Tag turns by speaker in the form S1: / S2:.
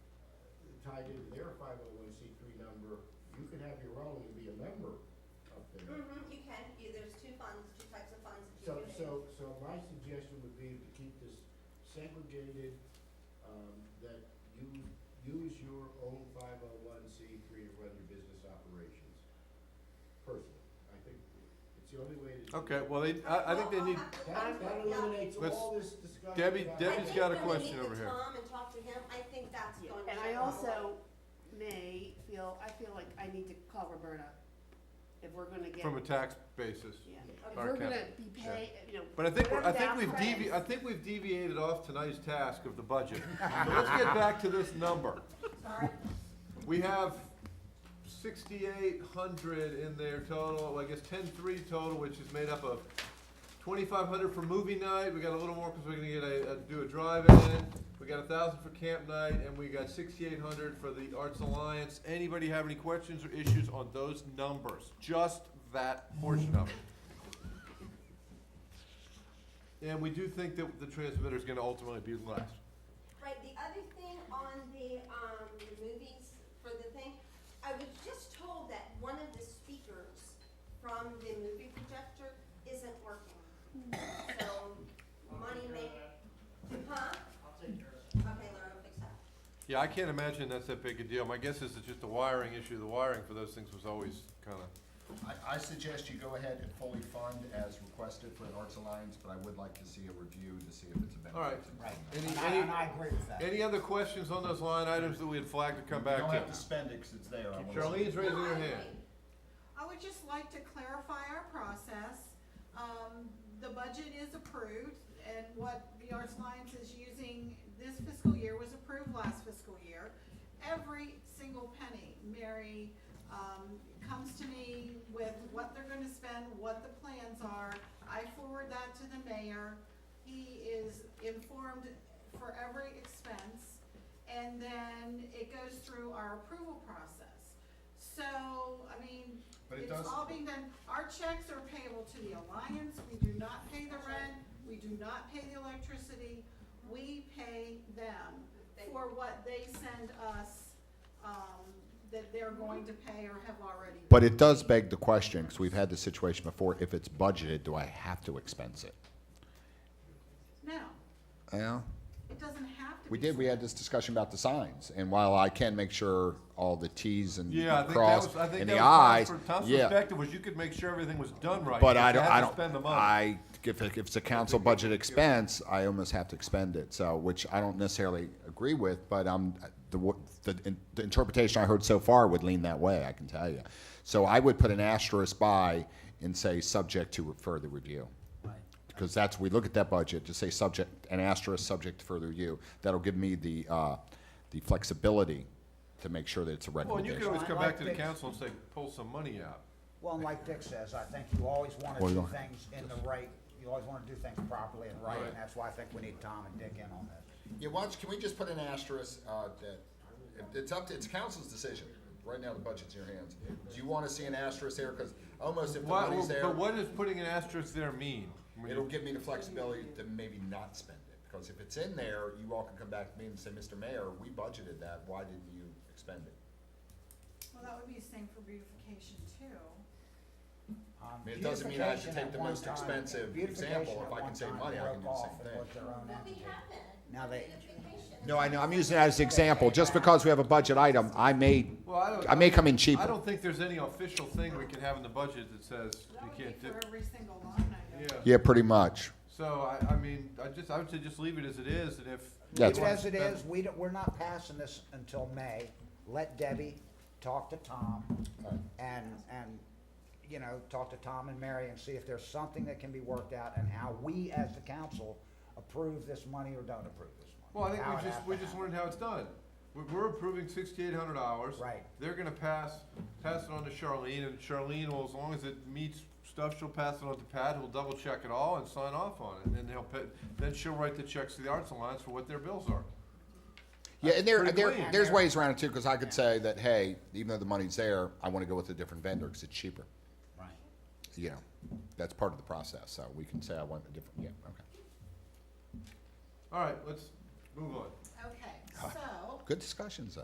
S1: tied into their five oh one C three number, you can have your own and be a member up there.
S2: Mm-hmm, you can, you, there's two funds, two types of funds that you
S1: So,
S2: can use.
S1: so, so my suggestion would be to keep this segregated, um, that you use your own five oh one C three to run your business operations. Personally, I think it's the only way to. do
S3: Okay,
S1: it.
S3: well, they, I, I think they
S2: Well,
S3: need,
S2: I'll have
S1: That,
S2: to come
S1: that
S2: to- yeah.
S1: eliminates
S3: Let's-
S1: all this discussion.
S3: Debbie-
S1: about-
S2: I
S3: Debbie's
S2: think
S3: got a
S2: when we
S3: question
S2: meet
S3: over
S2: with
S3: here.
S2: Tom and talk to him, I think that's
S4: Yeah,
S2: going to.
S4: And I
S2: go a long way.
S4: also may feel, I feel like I need to call Roberta if we're gonna get.
S3: from a tax basis.
S4: Yeah, if
S3: Our
S4: we're gonna
S3: cap-
S4: be
S3: sure.
S4: pay, you know.
S3: But I think, we're- I think
S4: whatever the
S3: we've
S4: outcome
S3: devi,
S4: is.
S3: I think we've deviated off tonight's task of the budget. So let's get back to this number.
S2: Sorry,
S3: We have sixty-eight hundred in there total, I guess ten-three total, which is made up of twenty-five hundred for movie night, we got a little more because we're gonna get a, a- do a drive-in, we got a thousand for camp night, and we got sixty-eight hundred for the Arts Alliance. Anybody have any questions or issues on those numbers? Just that portion of it. And we do think that the transmitter is gonna ultimately be less.
S2: right, the other thing on the, um, the movies for the thing, I was just told that one of the speakers from the movie projector isn't working. So, money may, huh?
S5: I'll take care of it.
S2: Okay, Laura, fix that.
S3: Yeah, I can't imagine that's that big a deal. My guess is it's just a wiring issue. The wiring for those things was always kind of,
S6: I, I suggest you go ahead and fully fund as requested for the Arts Alliance, but I would like to see a review to see if it's a benefit.
S3: all right.
S7: Right.
S3: Any,
S7: And I, and I
S3: any,
S7: agree with that.
S3: any other questions on those line items that we had flagged to come
S6: You don't
S3: back
S6: have to
S3: to?
S6: spend it 'cause it's there. I wanna see it.
S3: Charlene's raising
S2: No, I
S3: her
S2: agree.
S3: hand.
S8: I would just like to clarify our process. Um, the budget is approved, and what the Arts Alliance is using this fiscal year was approved last fiscal year. Every single penny, Mary, um, comes to me with what they're gonna spend, what the plans are. I forward that to the mayor. He is informed for every expense, and then it goes through our approval process. So, I mean,
S6: But it
S8: it's
S6: does-
S8: all being done, our checks are payable to the Alliance, we do not pay the rent, we do not pay the electricity, we pay them for what they send us, um, that they're going to pay or have already.
S6: But it does beg the question, because we've had this situation before, if it's budgeted, do I have to expense it?
S8: No,
S6: Yeah.
S8: it doesn't have to be.
S6: We did, we had this discussion about the signs, and while I can make sure all the Ts and
S3: Yeah, I think that
S6: cross
S3: was, I think
S6: and
S3: that
S6: the
S3: was,
S6: Is,
S3: from Tom's
S6: yeah.
S3: perspective was you could make sure everything was done right.
S6: But
S3: you
S6: I
S3: just
S6: don't,
S3: had
S6: I
S3: to
S6: don't,
S3: Spend the money.
S6: I, if, it- if it's a council budget expense, I almost have to expend it, so, which I don't necessarily agree with, but um, the, wo- the, in- the interpretation I heard so far would lean that way, I can tell you. So I would put an asterisk by and say, subject to further review. because that's, we look at that budget, to say subject, an asterisk, subject to further review, that'll give me the, uh, the flexibility to make sure that it's a
S3: Well, and you could
S6: recommendation.
S3: always come back to the
S7: Like this.
S3: council and say, pull some money out.
S7: Well, and like Dick says, I think you always want
S6: Well,
S7: to
S6: you
S7: do
S6: don't-
S7: things in the right, you always want to do things properly and right,
S3: Right.
S7: and that's why I think we need Tom and Dick in on this.
S6: Yeah, watch, can we just put an asterisk, uh, that, it's up to, it's council's decision, right now the budget's in your hands. Do you wanna see an asterisk there, cause almost if the
S3: Why,
S6: money's
S3: but
S6: there,
S3: what does putting an asterisk there mean? When you-
S6: it'll give me the flexibility to maybe not spend it. Because if it's in there, you all can come back to me and say, Mr. Mayor, we budgeted that, why didn't you expend it?
S8: Well, that would be the same for beautification too.
S7: Um,
S6: I mean, it doesn't mean I should
S7: beautification
S6: take
S7: at
S6: the
S7: one
S6: most
S7: time-
S6: expensive
S7: beautification
S6: example.
S7: at
S6: If I
S7: one
S6: can save
S7: time
S6: money, I
S7: broke
S6: can do the same
S7: off and
S6: thing.
S7: was their own
S2: Well, we
S7: entity.
S2: haven't.
S7: Now they-
S2: Beautification.
S6: No, I know, I'm using it as an example, just because we have a budget item, I may,
S3: Well, I don't-
S6: I may come in
S3: I
S6: cheaper.
S3: don't think there's any official thing we can have in the budget that says
S8: That
S3: you
S8: would be
S3: can't do.
S8: for every single line item.
S3: Yeah,
S6: Yeah, pretty much.
S3: so I, I mean, I just, I would say just leave it as it is and if.
S6: Yeah,
S7: Leave it
S3: it's-
S7: as it is, we don't, we're not passing this until May. Let Debbie talk to Tom and, and, you know, talk to Tom and Mary and see if there's something that can be worked out and how we as the council approve this money or don't approve this money.
S3: Well, I think
S7: How it
S3: we
S7: has
S3: just,
S7: to
S3: we just
S7: happen.
S3: learned how it's done. We're, we're approving sixty-eight hundred hours.
S7: Right.
S3: They're gonna pass, pass it on to Charlene, and Charlene will, as long as it meets stuff, she'll pass it on to Pat, who'll double check it all and sign off on it, and then he'll, pa- then she'll write the checks to the Arts Alliance for what their bills are.
S6: Yeah, and there,
S3: Pretty
S6: there,
S3: clean.
S6: there's ways around it too, because I could say that, hey, even though the money's there, I want to go with a different vendor because it's cheaper.
S7: Right.
S6: You know, that's part of the process, so we can say I want a different, yeah, okay.
S3: All right, let's move on.
S8: Okay, so.
S6: Good discussions, though.